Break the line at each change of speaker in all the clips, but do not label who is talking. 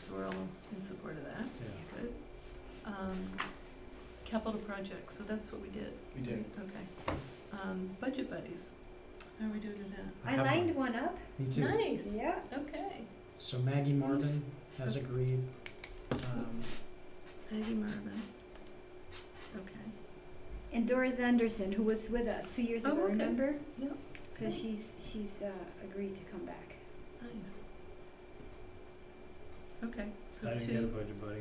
so we're all in support of that,
Yeah,
good. Um, capital projects, so that's what we did,
we did.
okay. Um, budget buddies, how are we doing with that?
have
lined one up.
Me too.
Nice,
Yeah.
okay.
So Maggie Marvin has agreed. Um,
Maggie Marvin, okay,
And Doris Anderson, who was with us two years
Oh,
ago,
okay.
remember? So
good,
she's she's uh, agreed to come back.
nice. Okay, so
I
two.
didn't get a budget buddy.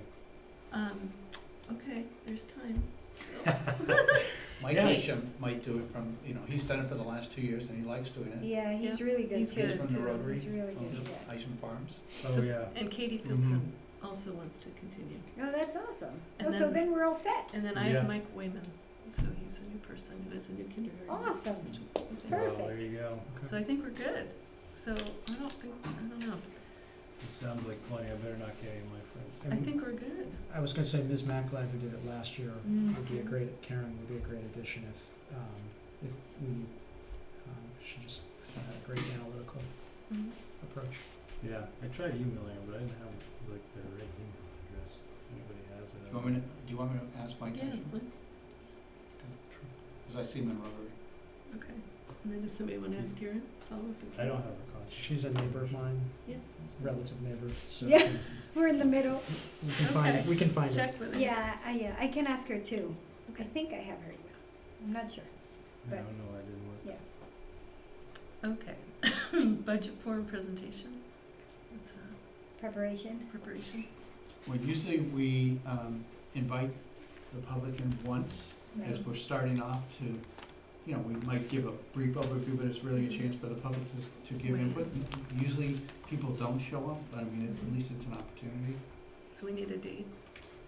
Um, okay, there's time.
Mike
Yeah.
Isham might do it from, you know, he's done it for the last two years and he likes doing it.
Yeah, he's really good
He's
too.
He's from the
too.
Rotary,
He's really
from
good.
the
Yes.
Isham Farms.
Oh,
So-
yeah.
And Katie
Mhm.
Filson also wants to continue.
Oh, that's awesome.
And
well, so
then-
then we're all set.
And then I
Yeah.
have Mike Wayman, so he's a new person who is a new kindergarten.
Awesome.
Okay.
Well, there
Perfect.
you go.
So I think we're good. So I don't think, I don't know,
It sounds like plenty. I better not get any of my friends.
I
And
think we're good.
I was gonna say Ms. McLeod, who did it last year,
Mm-hmm.
would be a
Mhm.
great, Karen would be a great addition if, um, if we, um, she just had a great analytical
Mhm.
approach. Yeah, I tried emailing her, but I didn't have like the right email address, if anybody has it.
Do you want me to, do you want me to ask Mike
Yeah,
Isham?
look,
Because I see him in Rotary.
okay. And then does somebody want to ask Karen? Follow up with
I don't
Karen?
have her contact. She's a neighbor of mine, relative neighbor, so we
Yeah.
can,
We're in the middle.
we can find,
Okay.
we can find it.
Check with her.
Yeah, I yeah, I can ask her too. I
Okay.
think I have her email. I'm not sure.
I
but-
don't know, I didn't work.
Okay. Budget form presentation. It's uh,
Preparation.
preparation.
Well, usually we um, invite the public in once as
Right.
we're starting off to, you know, we might give a brief overview, but it's really a chance for the public to, to give
Right.
input. Usually people don't show up, but I mean, at least it's an opportunity.
So we need a date.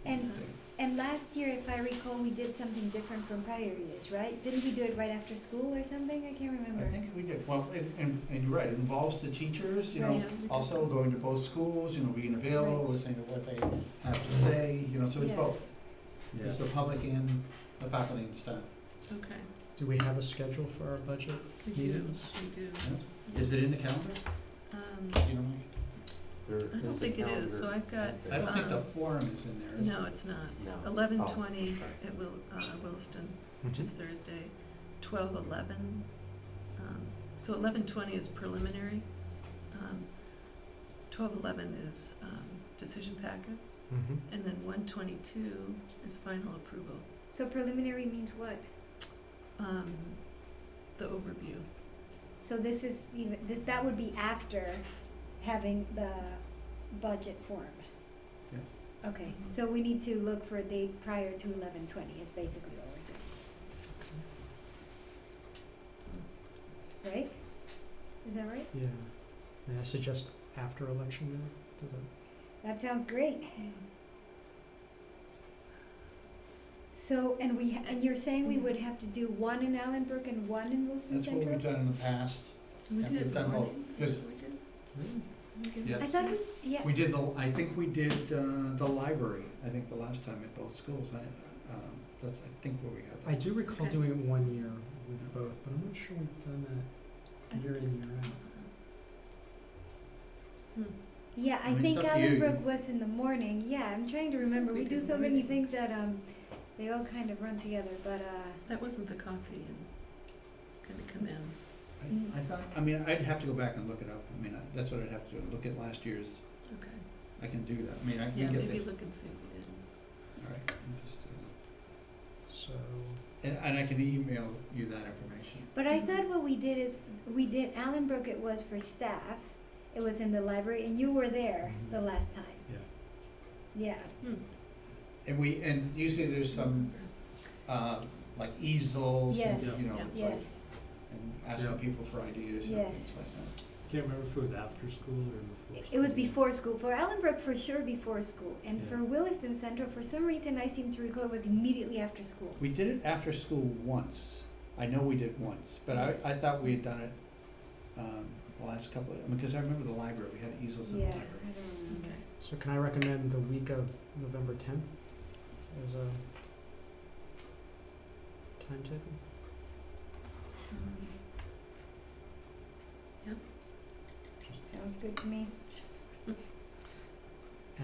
And
So-
and last year, if I recall, we did something different from prior years, right? Didn't we do it right after school or something? I can't remember.
I think we did, well, and, and, and you're right, it involves the teachers, you
Right.
know,
Yeah, we
also
just-
going to both schools, you know, being available,
Right.
listening to what they have to say, you know, so it's
Yeah.
both. It's the public and the faculty and staff.
Okay.
Do we have a schedule for our budget?
We do,
Meetings?
we do.
Is it in the calendar?
Um,
You know,
I don't think it is, so I've got,
I don't think the
Uh,
Oh.
Um,
forum is in there, is it?
no, it's not. Eleven twenty at Will, uh, Williston, which is Thursday, twelve eleven. Um, so eleven twenty is preliminary. Um, twelve eleven is, um, decision packets,
Mm-hmm.
and then one twenty-two is final approval.
So preliminary means what?
Um, the overview,
So this is even, this, that would be after having the budget form?
Yes.
Okay, so we need to look for a date prior to eleven twenty is basically what we're saying. Right? Is that right?
Yeah, may I suggest after election day, does that?
That sounds great. So, and we, ha- and you're saying we would have to do one in Allenbrook and one in Wilson
That's
Center?
what we've done in the past.
we
Yeah,
did
we've
the
done both,
morning, is
because-
that what we did?
Yes.
I thought, we- yeah,
We did the, I think we did, uh, the library, I think the last time at both schools, I, um, that's, I think where we had that.
I do recall
Okay.
doing it one year with both, but I'm not sure we've done that year in, year out.
Hmm,
yeah,
I
I
mean,
think
it's up to you.
Allenbrook was in the morning, yeah, I'm trying to remember,
We
we do
did
so many
morning.
things that, um, they all kind of run together, but, uh,
That wasn't the coffee and gonna come in.
I- I thought, I mean, I'd have to go back and look it up, I mean, I- that's what I'd have to do, look at last year's,
Okay.
I can do that, I mean, I
Yeah,
can get
maybe
that,
look and see if we did.
all right, I'm just, uh,
So,
and, and I can email you that information.
But
Mhm.
I
Mm-hmm.
thought what we did is, we did, Allenbrook it was for staff, it was in the library, and you were there
Mm-hmm.
Mhm.
the last time.
Yeah.
Yeah,
And we, and usually there's some, uh, like easels and,
Yes.
you know,
Yeah.
it's like,
yes,
and asking
Yeah.
people for ideas and
Yes.
things like that.
can't remember if it was after school or
It-
before school.
it was before school, for Allenbrook for sure before school, and
Yeah.
for Williston Central, for some reason I seem to recall it was immediately after school.
We did it after school once. I know we did once, but I, I thought we had done it, um, the last couple of, because I remember the library, we had easels in the
Yeah, I
library.
don't remember.
Okay.
So can I recommend the week of November tenth as a timetable?
Um,
Sounds good to me.